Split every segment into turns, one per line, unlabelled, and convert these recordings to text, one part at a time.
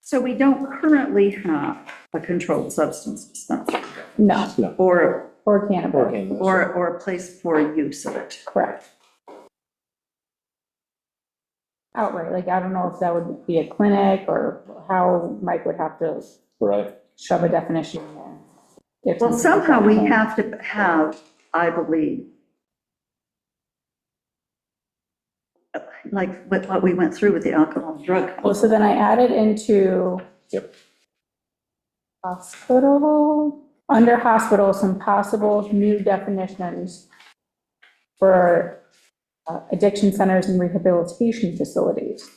So we don't currently have a controlled substance dispensary
No,
or,
or cannabis,
Organic.
or, or a place for use of it.
correct. Outright, like, I don't know if that would be a clinic or how Mike would have to
Right,
shove a definition in there. if
Well,
something-
somehow we have to have, I believe, like with what we went through with the alcohol and drug.
Well, so then I added into
yep.
hospital, under hospital, some possible new definitions for uh, addiction centers and rehabilitation facilities.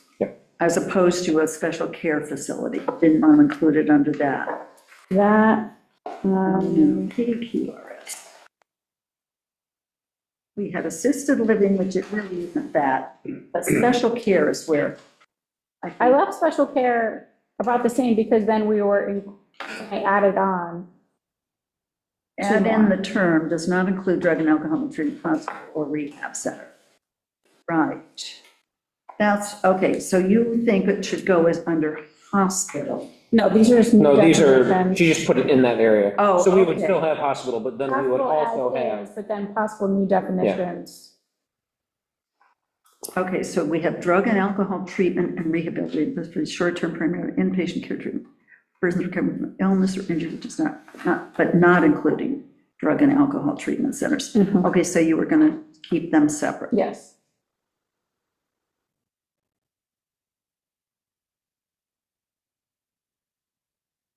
As opposed to a special care facility, didn't want to include it under that.
That, um,
PQRS. We had assisted living, which it really isn't that, but special care is where. think-
I left special care about the same because then we were, in- I added on.
Add in the term does not include drug and alcohol treatment hospital or rehab center. Right. That's, okay, so you think it should go as under hospital?
No, these are just. new
No, these are,
definitions.
she just put it in that area.
Oh,
So we would
okay.
still have hospital, but then we would
Possible
also
as
have,
is, But then possible new definitions.
Okay, so we have drug and alcohol treatment and rehabilitation for short-term primary inpatient care treatment. Persons recovering from illness or injury does not, not, but not including drug and alcohol treatment centers.
Mhm.
Okay, so you were gonna keep them separate.
Yes.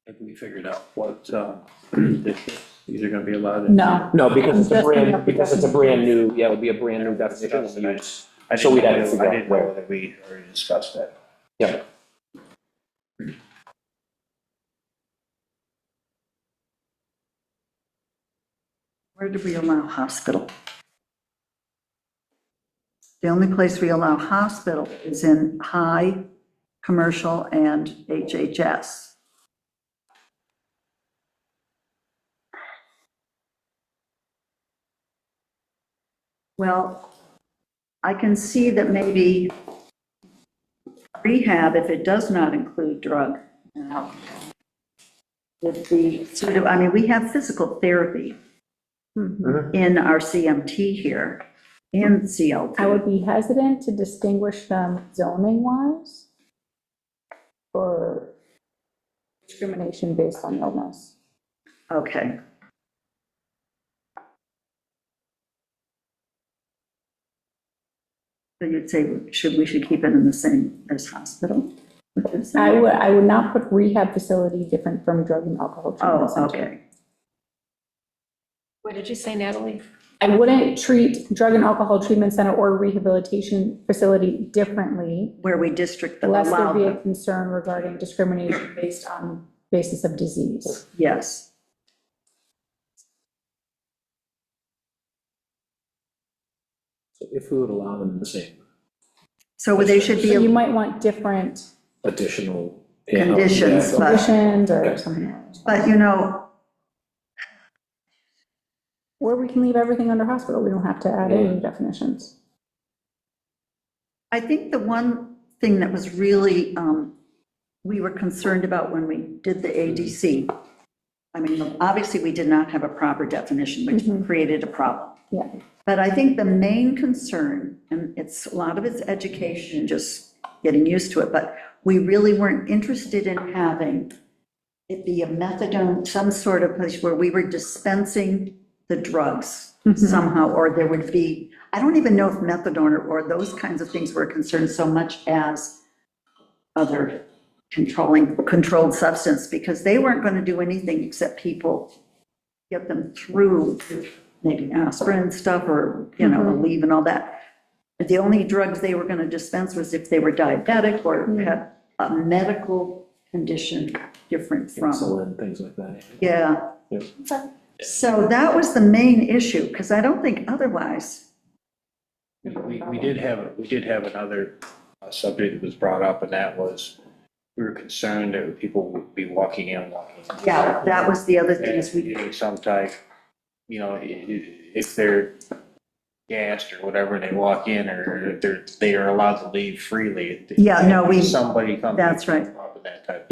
Have we figured out what, uh, if these are gonna be allowed? in?
No.
no, because it's a
Just enough
brand, because it's a
definitions.
brand new, yeah, it would be a brand new definition of use.
I
So we'd have to
didn't
figure
know-
out
I didn't
where.
know that we already discussed that.
Yeah,
Where do we allow hospital? The only place we allow hospital is in high, commercial, and HHS. Well, I can see that maybe rehab, if it does not include drug and alcohol, would be sort of, I mean, we have physical therapy
Mm-hmm.
in our CMT here, in
I
CLT.
would be hesitant to distinguish them zoning wise or discrimination based on illness.
Okay. So you'd say, should, we should keep it in the same as hospital?
I would, I would not put rehab facility different from drug and alcohol treatment
Oh,
center.
okay.
What did you say, Natalie?
I wouldn't treat drug and alcohol treatment center or rehabilitation facility differently
Where we district them,
unless
allow
there be a
them,
concern regarding discrimination based on basis of disease.
yes.
So if we would allow them the same
So they should
So you
be
might want different
additional.
conditions, but,
conditions or something else.
but you know,
Or we can leave everything under hospital, we don't have to add any definitions.
I think the one thing that was really, um, we were concerned about when we did the ADC, I mean, obviously, we did not have a proper definition, which created a problem.
Yeah,
But I think the main concern, and it's, a lot of it's education, and just getting used to it, but we really weren't interested in having it be a methadone, some sort of place where we were dispensing the drugs somehow, or there would be, I don't even know if methadone or, or those kinds of things were concerned so much as other controlling, controlled substance, because they weren't gonna do anything except people get them through maybe aspirin and stuff or, you know, Aleve and all that. The only drugs they were going to dispense was if they were diabetic or had a medical condition different from.
Insulin, things like that.
Yeah.
Yeah.
So that was the main issue, because I don't think otherwise,
We, we- we did have, we did have another uh, subject that was brought up, and that was, we were concerned that people would be walking in, walking out.
yeah, that was the other thing
And
is we,
getting some type, you know, i- i- if they're gassed or whatever, they walk in, or if they're, they are allowed to leave freely.
Yeah, no, we-
Somebody comes.
that's right.
That type of